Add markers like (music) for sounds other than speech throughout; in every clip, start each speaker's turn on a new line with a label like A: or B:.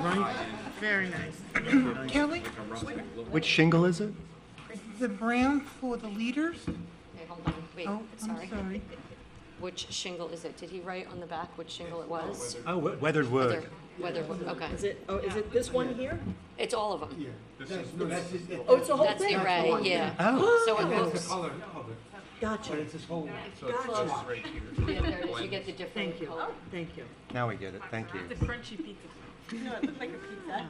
A: right?
B: Very nice.
C: Kelly,
A: Which shingle is it?
C: the brown for the leaders?
D: Okay, hold on, wait,
C: Oh, I'm
D: sorry.
C: sorry.
D: Which shingle is it? Did he write on the back which shingle it was?
A: Oh, we- weathered wood.
D: There- Whether, okay,
B: Is it, oh, is it this one here?
D: it's all of them.
B: Oh, it's the whole
D: That's the
B: thing?
D: array, yeah.
A: Oh,
D: So it looks,
B: Gotcha, gotcha.
D: yeah, there it is. you get the different
B: Thank you,
D: color.
B: thank you.
A: now we get it. Thank you.
E: Crunchy pizza. No, it looked like a pizza.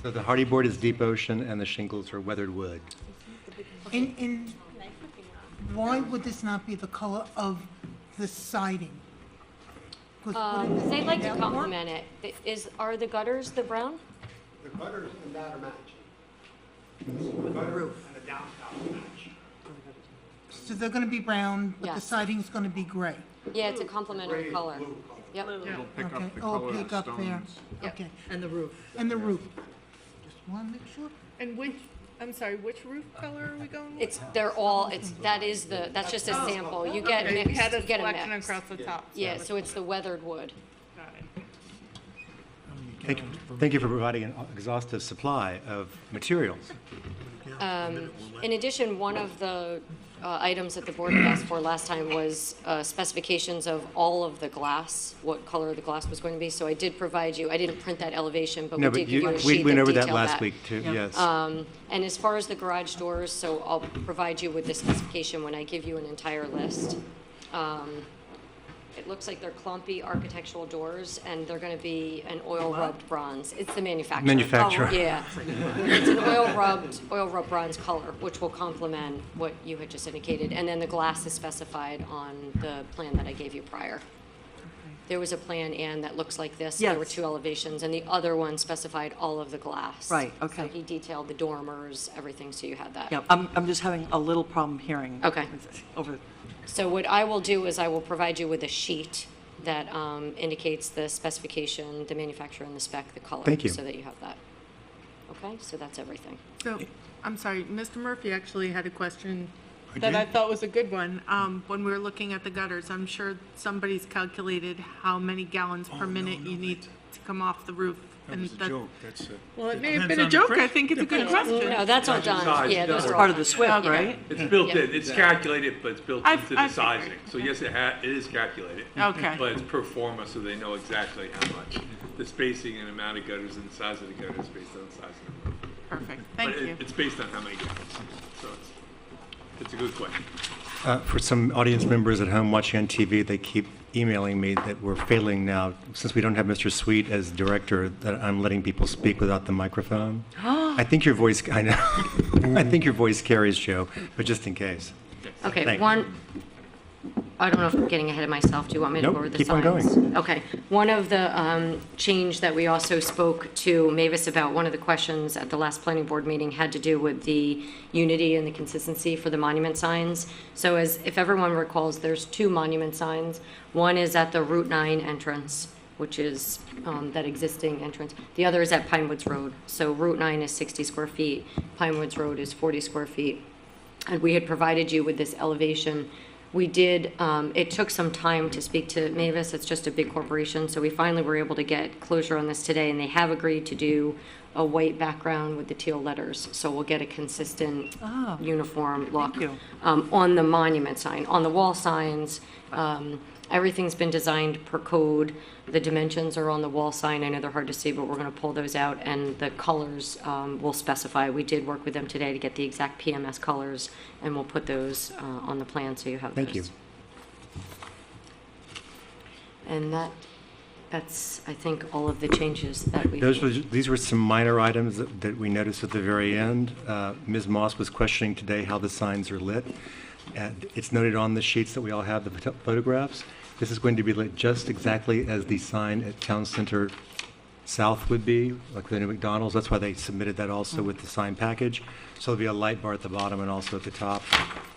A: So the hardy board is deep ocean and the shingles are weathered wood.
C: And, and why would this not be the color of the siding? 'Cause wouldn't
D: Um,
C: this
D: They'd like to
C: stand out more?
D: compliment it. Th- Is, are the gutters the brown?
F: The gutters and that are matching. The gutters and the downspout match.
C: So they're gonna be brown, but the
D: Yes.
C: siding's gonna be gray,
D: Yeah, it's a complementary
F: Gray,
D: color.
F: blue color.
D: Yep,
G: It'll pick
C: okay?
G: up the
C: Oh,
G: color of
C: pick
G: the
C: up there,
G: stones.
D: Yep.
C: okay.
B: And the roof.
C: And the roof? Just wanna make sure.
E: And which, I'm sorry, which roof color are we going with?
D: it's, they're all, it's, that is the, that's just a
F: Oh.
D: sample. You get
E: Okay,
D: mixed,
E: we had
D: you
E: a
D: get a
E: selection
D: mix.
E: across the top. so
D: Yeah,
E: that's-
D: so it's the weathered wood.
E: Got it.
A: Thank you, thank you for providing an exhaustive supply of materials.
D: Um, In addition, one of the uh, items that the board had asked for last time was uh, specifications of all of the glass, what color the glass was going to be. So I did provide you, I didn't print that elevation, but we
A: No,
D: did
A: but
D: give you
A: you,
D: a sheet
A: we
D: that
A: went over that
D: detailed
A: last week too, yes.
E: Uh,
D: Um, And as far as the garage doors, so I'll provide you with the specification when I give you an entire list. Um, It looks like they're clumpy architectural doors, and they're going to be an oil-rubbed bronze. It's the manufacturer.
A: Manufacturer.
D: Oh, Yeah. It's an oil-rubbed, oil-rubbed bronze color, which will complement what you had just indicated. And then the glass is specified on the plan that I gave you prior. There was a plan, Ann, that looks like this. There were
B: Yes.
D: two elevations, and the other one specified all of the glass.
B: Right,
D: So
B: okay.
D: he detailed the dormers, everything, so you had that.
B: Yeah, I'm, I'm just having a little problem hearing.
D: Okay.
B: Over,
D: So what I will do is I will provide you with a sheet that um, indicates the specification, the manufacturer, and the spec, the color.
A: Thank you.
D: So that you have that. Okay, so that's everything.
E: So, I'm sorry, Mr. Murphy actually had a question that I thought was a good one. Um, when we were looking at the gutters, I'm sure somebody's calculated how many gallons per minute you need to come off the roof. and
G: It's a joke, that's it.
E: Well, it may have been a joke. I think it's a good
D: No,
E: question.
D: that's all done. Yeah, those are all
B: part of
D: done.
B: the SWIP, right?
H: It's built
D: Yeah.
H: in, it's calculated, but it's built
E: I've-
H: into the
E: I've figured.
H: sizing. So yes, it ha, it is calculated.
E: Okay.
H: But it's pro forma, so they know exactly how much, the spacing and amount of gutters and the size of the gutters based on the size of the roof.
E: Perfect,
H: But
E: thank you.
H: it- it's based on how many gutters, so it's, it's a good question.
A: Uh, For some audience members at home watching on TV, they keep emailing me that we're failing now, since we don't have Mr. Sweet as director, that I'm letting people speak without the microphone. I think your voice, I know, (laughs) I think your voice carries, Joe, but just in case.
D: Okay,
A: Thank-
D: one, I don't know if I'm getting ahead of myself. Do you want me to
A: Nope,
D: go over the
A: keep on
D: signs?
A: going.
D: Okay. One of the um, change that we also spoke to Mavis about, one of the questions at the last planning board meeting had to do with the unity and the consistency for the monument signs. So as, if everyone recalls, there's two monument signs. One is at the Route 9 entrance, which is um, that existing entrance. The other is at Pine Woods Road. So Route 9 is 60 square feet, Pine Woods Road is 40 square feet and we had provided you with this elevation. We did, um, it took some time to speak to Mavis, it's just a big corporation, so we finally were able to get closure on this today, and they have agreed to do a white background with the teal letters, so we'll get a consistent, uniform look.
B: you.
D: Um, on the monument sign, on the wall signs, um, everything's been designed per code. The dimensions are on the wall sign, I know they're hard to see, but we're gonna pull those out, and the colors, um, will specify. We did work with them today to get the exact PMS colors, and we'll put those, uh, on the plan, so you have those.
A: Thank you.
D: And that, that's, I think, all of the changes that we.
A: Those were, these were some minor items that that we noticed at the very end. Uh, Ms. Moss was questioning today how the signs are lit. And it's noted on the sheets that we all have, the photo- photographs. This is going to be lit just exactly as the sign at Town Center South would be, like the new McDonald's. That's why they submitted that
B: Mm.
A: also with the sign package. So there'll be a light bar at the bottom and also at the top.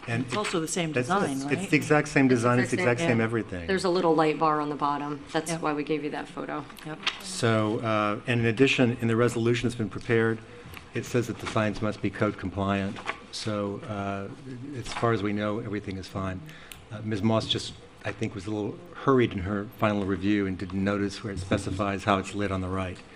A: And
B: It's also the same
A: that's-
B: design,
A: it's- It's
B: right?
A: the exact same design, it's
D: It's
A: the
D: the
A: exact
D: same-
A: same
B: yeah.
A: everything.
D: There's a little light bar on the bottom, that's
B: Yeah.
D: why we gave you that photo.
B: Yep.
A: So, uh, and in addition, in the resolution that's been prepared, it says that the signs must be code compliant. So uh, as far as we know, everything is fine. Uh, Ms. Moss just, I think, was a little hurried in her final review and didn't notice where it specifies how it's lit on the right.